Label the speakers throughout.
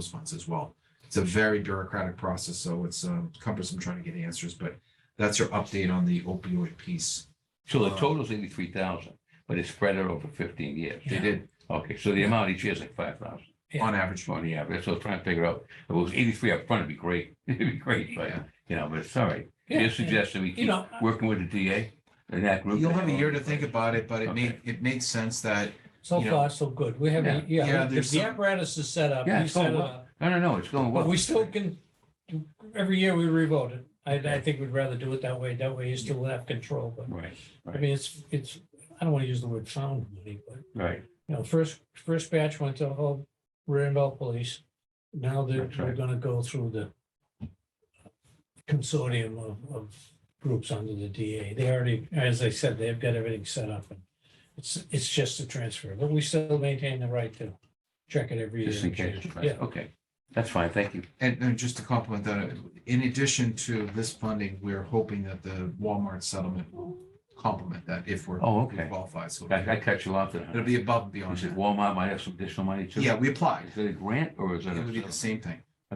Speaker 1: those funds as well. It's a very bureaucratic process, so it's um, cumbersome trying to get answers, but that's your update on the opioid piece.
Speaker 2: So the total's eighty-three thousand, but it's spread out over fifteen years.
Speaker 1: They did,
Speaker 2: Okay, so the amount each year is like five thousand
Speaker 3: Yeah.
Speaker 1: on average,
Speaker 2: on the average. So I was trying to figure out, if it was eighty-three up front, it'd be great. It'd be great, but,
Speaker 1: Yeah.
Speaker 2: you know, but sorry.
Speaker 3: Yeah,
Speaker 2: You're suggesting we
Speaker 3: You
Speaker 2: keep
Speaker 3: know, I-
Speaker 2: working with the DA and that group.
Speaker 1: you'll have a year to think about it, but it made,
Speaker 2: Okay.
Speaker 1: it made sense that,
Speaker 3: So
Speaker 1: you know-
Speaker 3: far, so good. We have, a-
Speaker 1: Yeah,
Speaker 3: yeah, the
Speaker 1: there's
Speaker 3: the
Speaker 1: some-
Speaker 3: apparatus is set up.
Speaker 2: Yeah,
Speaker 3: we
Speaker 2: it's
Speaker 3: set
Speaker 2: going
Speaker 3: it
Speaker 2: well.
Speaker 3: up,
Speaker 2: No, no, no, it's going
Speaker 3: But
Speaker 2: well.
Speaker 3: we still can, every year we revote it. I, I think we'd rather do it that way. That way you still have control, but
Speaker 2: Right,
Speaker 3: I mean, it's, it's, I don't want to use the word found money, but
Speaker 2: right.
Speaker 3: you know, first, first batch went to all Randolph Police. Now they're,
Speaker 2: That's
Speaker 3: we're
Speaker 2: right.
Speaker 3: gonna go through the consortium of, of groups under the DA. They already, as I said, they've got everything set up. and It's, it's just a transfer, but we still maintain the right to check it every year.
Speaker 2: Just in case. right.
Speaker 3: Yeah,
Speaker 2: Okay, that's fine. Thank you.
Speaker 1: and and just to compliment that, in addition to this funding, we're hoping that the Walmart settlement will complement that if we're
Speaker 2: Oh,
Speaker 1: if we
Speaker 2: okay.
Speaker 1: qualify, so
Speaker 2: I, I cut you off there.
Speaker 1: it'll be above and
Speaker 2: You
Speaker 1: beyond
Speaker 2: said
Speaker 1: that.
Speaker 2: Walmart might have some additional money too.
Speaker 1: Yeah, we applied,
Speaker 2: Is it a grant or is it
Speaker 1: it would be the
Speaker 2: a settlement?
Speaker 1: same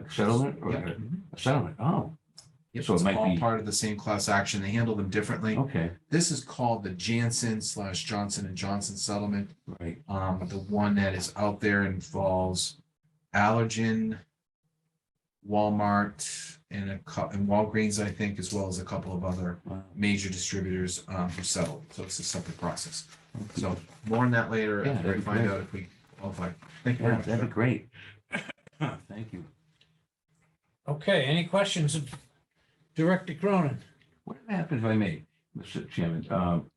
Speaker 1: thing.
Speaker 2: a settlement or
Speaker 1: Yeah.
Speaker 2: a a settlement? Oh,
Speaker 1: Yep,
Speaker 2: So it
Speaker 1: it's
Speaker 2: might
Speaker 1: all
Speaker 2: be-
Speaker 1: part of the same class action. They handle them differently.
Speaker 2: okay,
Speaker 1: This is called the Janssen slash Johnson and Johnson settlement.
Speaker 2: right.
Speaker 1: Um, the one that is out there involves Allergen, Walmart, and a cou- and Walgreens, I think, as well as a couple of other
Speaker 2: Wow.
Speaker 1: major distributors um, who settled. So it's a separate process. So more on that later
Speaker 2: Yeah,
Speaker 1: after I
Speaker 2: that'd be
Speaker 1: find
Speaker 2: great.
Speaker 1: out if we qualify. Thank you very
Speaker 2: Yeah,
Speaker 1: much.
Speaker 2: that'd be great. Thank you.
Speaker 3: okay, any questions of Director Cronin?
Speaker 2: What happens if I may, Mr. Chairman, um,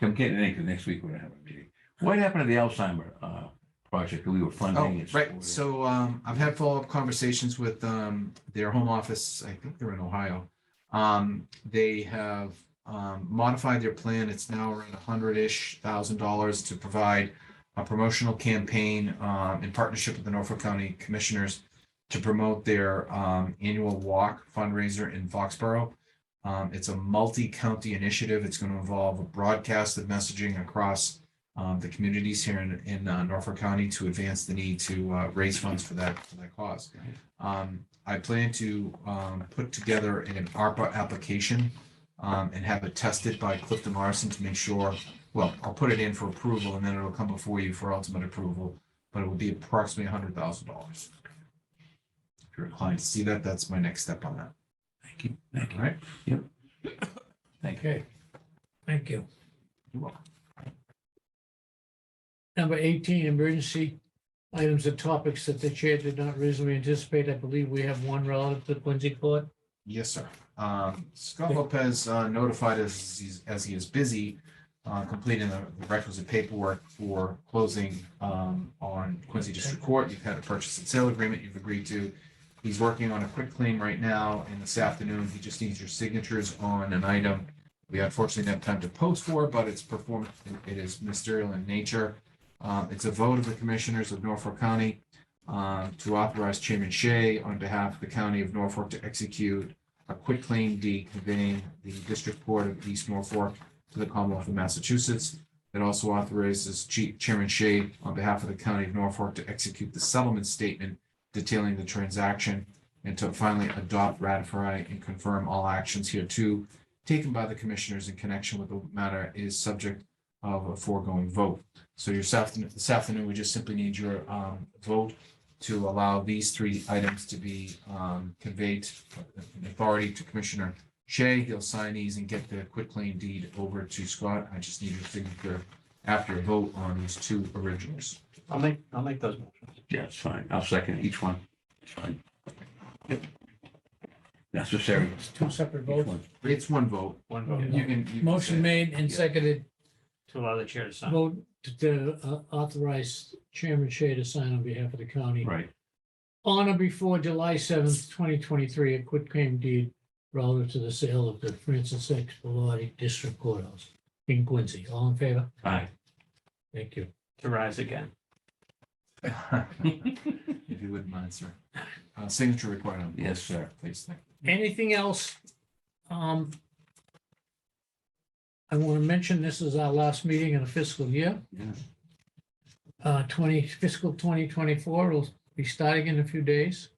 Speaker 2: I'm getting into next week when I have a meeting. What happened to the Alzheimer, uh, project that we were funding?
Speaker 1: Oh,
Speaker 2: and
Speaker 1: right.
Speaker 2: supporting?
Speaker 1: So um, I've had follow-up conversations with um, their home office. I think they're in Ohio. Um, they have um, modified their plan. It's now around a hundred-ish thousand dollars to provide a promotional campaign um, in partnership with the Norfolk County Commissioners to promote their um, annual walk fundraiser in Foxborough. Um, it's a multi-county initiative. It's going to involve a broadcast of messaging across um, the communities here in, in uh, Norfolk County to advance the need to, uh, raise funds for that, for that cause. Um, I plan to, um, put together an ARPA application, um, and have it tested by Clifton Larson to make sure, well, I'll put it in for approval and then it'll come before you for ultimate approval, but it will be approximately hundred thousand dollars. If you're inclined to see that, that's my next step on that.
Speaker 2: Thank you, thank
Speaker 1: All
Speaker 2: you,
Speaker 1: right?
Speaker 2: thank you.
Speaker 3: Okay, thank you.
Speaker 1: You're welcome.
Speaker 3: Number eighteen, emergency items and topics that the chair did not reasonably anticipate. I believe we have one relative to Quincy Court.
Speaker 1: Yes, sir. Um, Scott Lopez uh, notified us he's- as he is busy uh, completing the requisite paperwork for closing um, on Quincy District Court. You've had a purchase and sale agreement you've agreed to. He's working on a quick claim right now, and this afternoon, he just needs your signatures on an item we unfortunately didn't have time to post for, but it's perform, it is ministerial in nature. Uh, It's a vote of the Commissioners of Norfolk County uh, to authorize Chairman Shea on behalf of the County of Norfolk to execute a quitclaim deed conveying the District Court of East Norfolk to the Commonwealth of Massachusetts. It also authorizes Chief Chairman Shea on behalf of the County of Norfolk to execute the settlement statement detailing the transaction and to finally adopt, ratify, and confirm all actions here too taken by the commissioners in connection with the matter is subject of a foregoing vote. So your afternoon, this afternoon, we just simply need your um vote to allow these three items to be um conveyed uh, authority to Commissioner Shea. He'll sign these and get the quitclaim deed over to Scott. I just need your signature after a vote on these two originals.
Speaker 4: I'll make, I'll make those motions.
Speaker 2: Yeah, it's fine. I'll second each one. It's fine. Yep. Necessary.
Speaker 3: It's two separate
Speaker 2: Each
Speaker 3: votes.
Speaker 2: one.
Speaker 1: It's one vote.
Speaker 4: One
Speaker 3: vote.
Speaker 1: You can. you can
Speaker 3: Motion
Speaker 1: say-
Speaker 3: made and seconded,
Speaker 4: To allow the chair to sign.
Speaker 3: vote to- to uh, authorize Chairman Shea to sign on behalf of the county.
Speaker 2: Right,
Speaker 3: On or before July seventh, twenty twenty-three, a quit claim deed relative to the sale of the Francis X. Bellotti District Courthouse in Quincy. All in favor?
Speaker 2: aye.
Speaker 3: Thank you.
Speaker 4: To rise again.
Speaker 1: If you wouldn't mind, sir. Uh, signature required on. both,
Speaker 2: Yes, sir.
Speaker 1: Please, thank you.
Speaker 3: Anything else? Um, I want to mention this is our last meeting in the fiscal year.
Speaker 2: Yeah.
Speaker 3: Uh, twenty, fiscal twenty twenty-four will be starting in a few days.